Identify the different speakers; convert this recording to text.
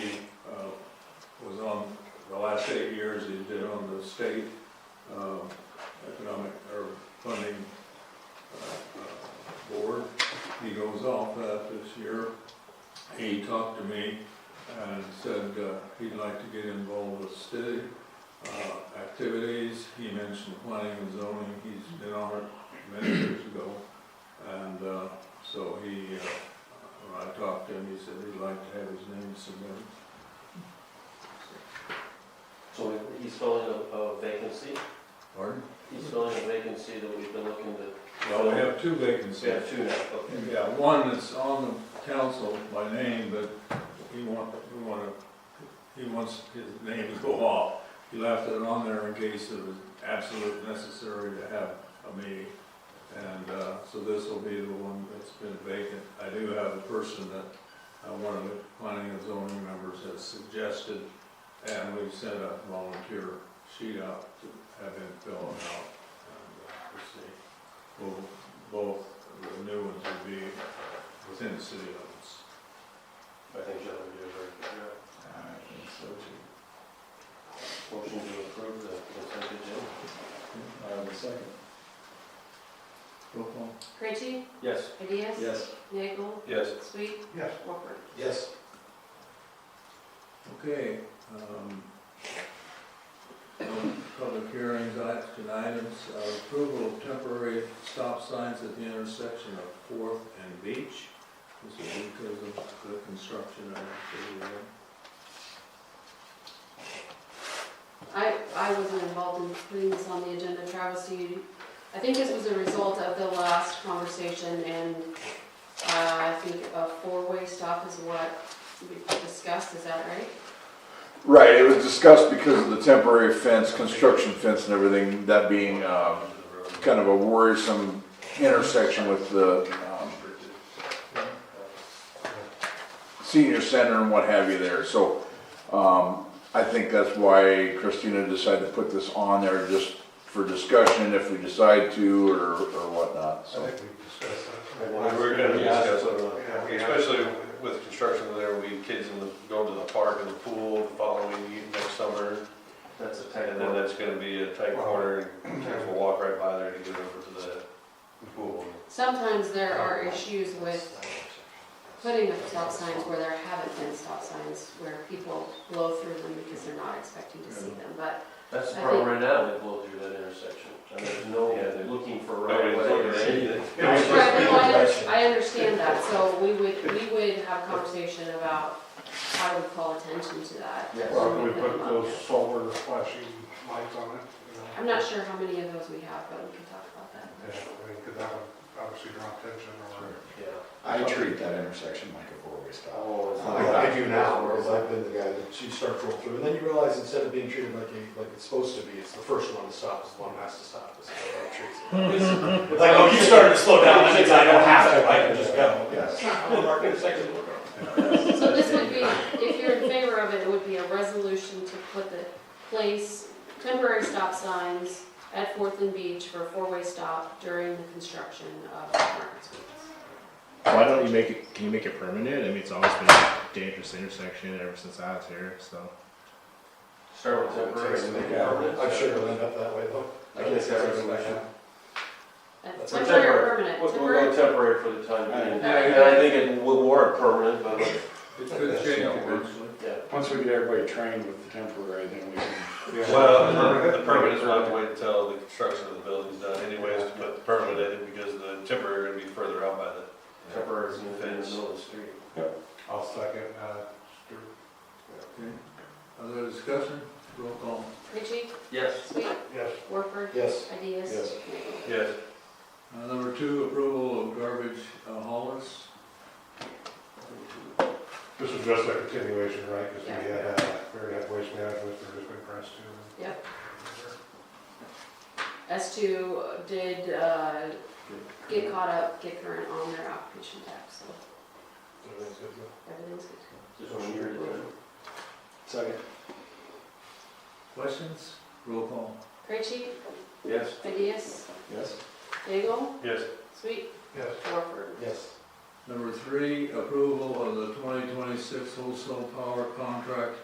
Speaker 1: uh, state uh, economic or funding uh, uh, board. He goes off that this year. He talked to me and said uh, he'd like to get involved with city uh, activities. He mentioned planning and zoning, he's been on it many years ago. And uh, so he, uh, when I talked to him, he said he'd like to have his name submitted.
Speaker 2: So we- he's filling a- a vacancy,
Speaker 1: Pardon?
Speaker 2: he's filling a vacancy that we've been looking to,
Speaker 1: Well, we have two
Speaker 2: we
Speaker 1: vacancies.
Speaker 2: have two now, okay.
Speaker 1: Yeah, one that's on the council by name, but he want, we want to, he wants his name to go off. He left it on there in case it was absolute necessary to have a meeting. And, uh, so this will be the one that's been vacant. I do have a person that, uh, one of the planning and zoning members has suggested, and we've sent a volunteer sheet out to have him fill it out. And, uh, We'll see. Well, both, the new ones would be within the city limits.
Speaker 2: I think John would do a very good job.
Speaker 3: I think so too.
Speaker 2: Motion to approve the consent agenda?
Speaker 3: I have a second.
Speaker 1: Roll call.
Speaker 4: Krejci,
Speaker 2: Yes.
Speaker 4: Ideas?
Speaker 3: Yes.
Speaker 4: Nagel,
Speaker 2: Yes.
Speaker 4: Sweet?
Speaker 3: Yes.
Speaker 4: Walker?
Speaker 3: Yes.
Speaker 1: Okay, um, no public hearings, action items, uh, approval of temporary stop signs at the intersection of Fourth and Beach. This is because of the construction of the, uh,
Speaker 4: I, I wasn't involved in putting this on the agenda, Travis, do you, I think this was a result of the last conversation and, uh, I think a four-way stop is what we discussed, is that right?
Speaker 5: Right, it was discussed because of the temporary fence, construction fence and everything, that being um, kind of a worrisome intersection with the um, senior center and what have you there. So um, I think that's why Christina decided to put this on there, just for discussion if we decide to or or whatnot,
Speaker 6: I
Speaker 5: so.
Speaker 6: think we've discussed
Speaker 2: We
Speaker 6: that.
Speaker 2: were gonna discuss it.
Speaker 6: Yeah, we have-
Speaker 7: Especially with construction there, we kids in the, go to the park and the pool the following year- next summer.
Speaker 2: That's a tight
Speaker 7: And then
Speaker 2: one.
Speaker 7: that's gonna be a tight corner, and kids will walk right by there to get over to the pool.
Speaker 4: Sometimes there are issues with putting up stop signs where there haven't been stop signs, where people blow through them because they're not expecting to see them, but
Speaker 2: That's the problem right now, we blow through that intersection, and there's no,
Speaker 7: Yeah.
Speaker 2: they're looking for right
Speaker 7: Nobody's looking at
Speaker 2: away.
Speaker 7: anything.
Speaker 4: Right, no, I, I understand that, so we would, we would have conversation about how to call attention to that. uh,
Speaker 2: Yes.
Speaker 6: Well, we put those solar flashing lights on it, you know.
Speaker 4: I'm not sure how many of those we have, but we can talk about that.
Speaker 6: Yeah, I mean, 'cause that would obviously draw attention or.
Speaker 2: Yeah.
Speaker 3: I treat that intersection like a four-way stop.
Speaker 2: Oh, it's
Speaker 8: I
Speaker 2: not-
Speaker 8: I do now, because I've been the guy that you start to roll through, and then you realize instead of being treated like a, like it's supposed to be, it's the first one to stop, is the one who has to stop, is how it treats it.
Speaker 2: It's
Speaker 8: Like, oh, you started to slow down, that means I don't have to, I can just go.
Speaker 3: Yes.
Speaker 8: I'm gonna mark it a second, we'll go.
Speaker 4: So this would be, if you're in favor of it, it would be a resolution to put the place temporary stop signs at Fourth and Beach for a four-way stop during the construction of Market Squeeze.
Speaker 9: Why don't you make it? Can you make it permanent? I mean, it's always been a dangerous intersection ever since I was here. So
Speaker 2: Start with temporary. and make it permanent.
Speaker 8: I'm sure it'll end up that way though. I guess that's a question.
Speaker 4: That's
Speaker 2: For
Speaker 4: temporary or
Speaker 2: temporary.
Speaker 4: permanent,
Speaker 2: We'll, we'll go
Speaker 4: temporary,
Speaker 2: temporary for the time being, and
Speaker 4: Yeah.
Speaker 2: I think it would warrant permanent, but
Speaker 1: it could
Speaker 3: That's
Speaker 1: change
Speaker 3: not working.
Speaker 1: eventually.
Speaker 2: yeah.
Speaker 3: Once we get everybody trained with the temporary, then we can.
Speaker 7: Well, the permanent will have to wait until the construction of the building's done anyways to put the permanent in it because the temporary would be further out by the
Speaker 2: Temporary is in the middle of the street.
Speaker 6: I'll second, uh, Stuart.
Speaker 1: Okay. Other discussion? Roll call.
Speaker 4: Ritchie,
Speaker 2: Yes.
Speaker 4: Sweet,
Speaker 6: yes,
Speaker 4: Warford,
Speaker 8: Yes,
Speaker 4: Ideas.
Speaker 8: Yes.
Speaker 7: Yes.
Speaker 1: Uh, Number two, approval of garbage uh, haulers.
Speaker 6: this is just a continuation, right, because we
Speaker 4: Yeah.
Speaker 6: had, uh, we had waste management, they're just been pressed to.
Speaker 4: Yep. S2 did uh, get caught up, get current on their application tax, so
Speaker 8: Everything's good, though.
Speaker 4: everything's good.
Speaker 2: Just one year at a time.
Speaker 3: Second.
Speaker 1: Questions? Roll call.
Speaker 4: Krejci,
Speaker 2: Yes.
Speaker 4: Ideas,
Speaker 3: Yes.
Speaker 4: Daigle,
Speaker 7: Yes.
Speaker 4: Sweet,
Speaker 6: Yes,
Speaker 4: Warford.
Speaker 8: yes.
Speaker 1: Number three, approval of the 2026 wholesale power contract